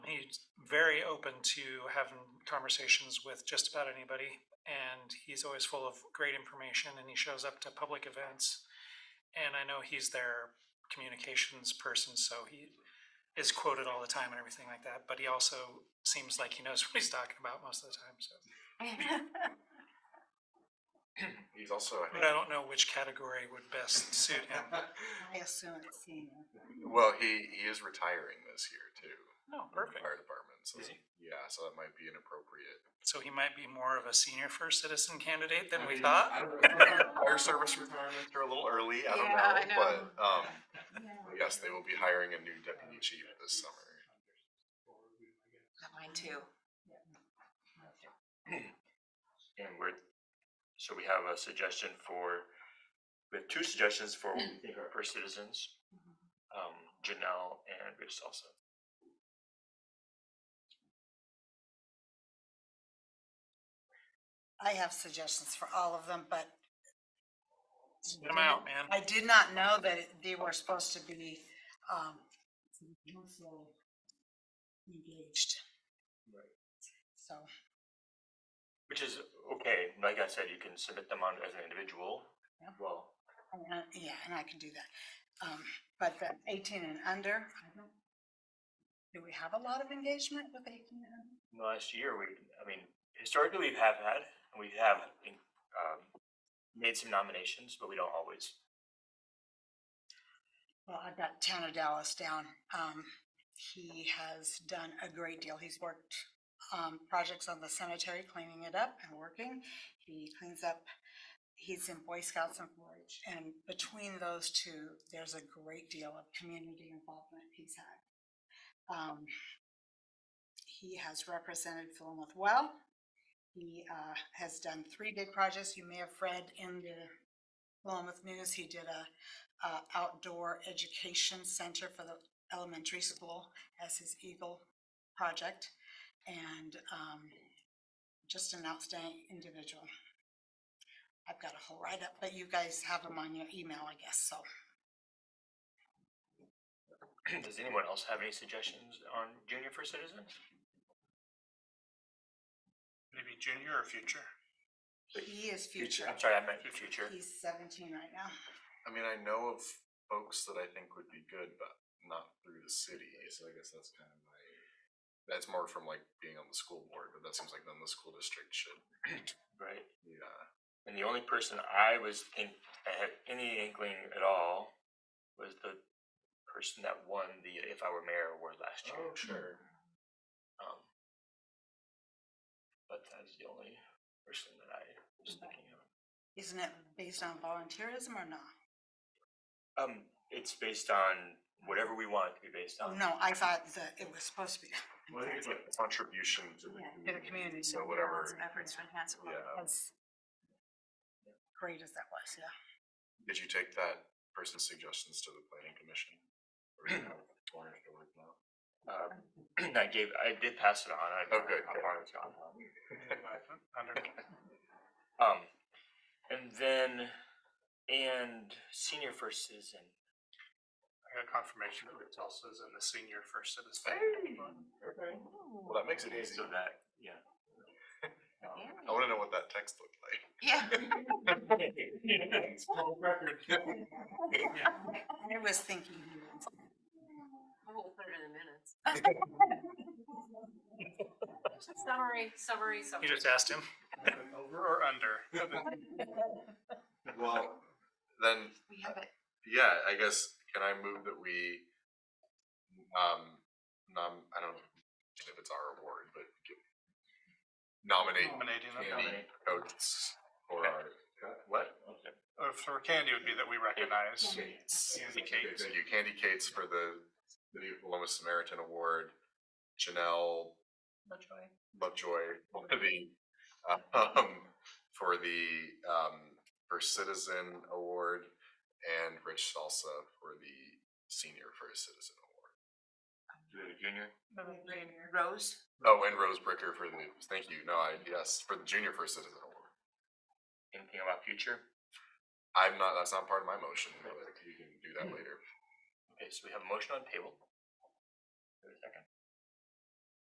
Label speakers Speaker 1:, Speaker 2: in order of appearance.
Speaker 1: he's very open to having conversations with just about anybody. And he's always full of great information and he shows up to public events. And I know he's their communications person, so he is quoted all the time and everything like that. But he also seems like he knows what he's talking about most of the time, so.
Speaker 2: He's also,
Speaker 1: But I don't know which category would best suit him.
Speaker 3: I assume it's senior.
Speaker 2: well, he, he is retiring this year too.
Speaker 1: No,
Speaker 2: from
Speaker 1: perfect.
Speaker 2: the Fire department, so,
Speaker 4: Is he?
Speaker 2: yeah, so that might be inappropriate.
Speaker 1: So he might be more of a senior first citizen candidate than
Speaker 4: I
Speaker 1: we
Speaker 4: mean,
Speaker 1: thought?
Speaker 4: I don't know.
Speaker 2: Fire service retirements are a little early, I don't
Speaker 3: Yeah, I
Speaker 2: know, but,
Speaker 3: know.
Speaker 2: um,
Speaker 3: Yeah,
Speaker 2: yes, they will be hiring a new deputy chief this summer.
Speaker 3: Mine too.
Speaker 4: And we're, so we have a suggestion for, we have two suggestions for what we think are first citizens, um, Janelle and Rich Salsa.
Speaker 3: I have suggestions for all of them, but.
Speaker 1: Get him out, man.
Speaker 3: I did not know that it- they were supposed to be, um, engaged. So,
Speaker 4: Which is okay, like I said, you can submit them on as an individual,
Speaker 3: Yeah.
Speaker 4: well,
Speaker 3: and I- yeah, and I can do that. Um, but the eighteen and under, I don't, do we have a lot of engagement with eighteen and under?
Speaker 4: last year, we, I mean, historically, we have had, and we have, um, made some nominations, but we don't always.
Speaker 3: Well, I've got Town of Dallas down. Um, he has done a great deal. He's worked, um, projects on the cemetery, cleaning it up and working. He cleans up, he's in Boy Scouts and 4-H. And between those two, there's a great deal of community involvement he's had. Um, he has represented Philomath well. He, uh, has done three big projects. You may have read in the Philomath News, he did a, uh, outdoor education center for the elementary school as his Eagle project. And, um, just an outstanding individual. I've got a whole write-up, but you guys have them on your email, I guess, so.
Speaker 4: Does anyone else have any suggestions on junior first citizens?
Speaker 5: Maybe junior or future?
Speaker 3: He is future.
Speaker 4: I'm sorry, I meant future.
Speaker 3: He's seventeen right now.
Speaker 2: I mean, I know of folks that I think would be good, but not through the city, so I guess that's kind of my, that's more from like being on the school board, but that seems like then the school district should,
Speaker 4: Right.
Speaker 2: yeah.
Speaker 4: And the only person I was think I had any inkling at all was the person that won the If I Were Mayor award last year.
Speaker 2: Oh, sure.
Speaker 4: Um, but that's the only person that I was thinking of.
Speaker 3: Isn't it based on volunteerism or not?
Speaker 4: Um, it's based on whatever we want it to be based
Speaker 3: Oh,
Speaker 4: on.
Speaker 3: no, I thought that it was supposed to be.
Speaker 2: Well, I think it's like a contribution to the community.
Speaker 3: To the community.
Speaker 2: So whatever,
Speaker 3: Efforts to enhance.
Speaker 2: Yeah.
Speaker 3: As great as that was, yeah.
Speaker 2: did you take that person's suggestions to the planning commission? Or do you have a corner to work now?
Speaker 4: Uh, I gave, I did pass it on. I,
Speaker 2: Oh, good,
Speaker 4: I
Speaker 2: good.
Speaker 4: wanted to on.
Speaker 5: Under,
Speaker 4: Um, and then, and senior first citizen.
Speaker 5: I got confirmation that it's also is in the senior first citizen.
Speaker 2: Hey, okay. Well, that makes it easy.
Speaker 4: So that, yeah. Um,
Speaker 2: I wanna know what that text looked like.
Speaker 3: Yeah.
Speaker 5: It's all record. Yeah.
Speaker 3: I was thinking he was.
Speaker 6: We'll put it in the minutes. Summary, summary,
Speaker 1: You
Speaker 6: summary.
Speaker 1: just asked him.
Speaker 5: Over or under?
Speaker 2: Well, then,
Speaker 6: We have it.
Speaker 2: yeah, I guess, can I move that we, um, nom, I don't know if it's our award, but give- nominate
Speaker 5: Nominating them.
Speaker 2: Candy Coates for our.
Speaker 4: What?
Speaker 5: Or for candy would be that we recognize. Candy
Speaker 2: Okay,
Speaker 5: Kate.
Speaker 2: Thank you, Candy Cates for the City of Loma Samaritan Award, Janelle Lovejoy for the, um, for the, um, First Citizen Award, and Rich Salsa for the Senior First Citizen Award.
Speaker 4: Junior?
Speaker 6: Rose?
Speaker 2: Oh, and Rose Bricker for the, thank you, no, I, yes, for the Junior First Citizen Award.
Speaker 4: Anything about future?
Speaker 2: I'm not, that's not part of my motion, but you can do that later.
Speaker 4: Okay, so we have a motion on table. Is there a second?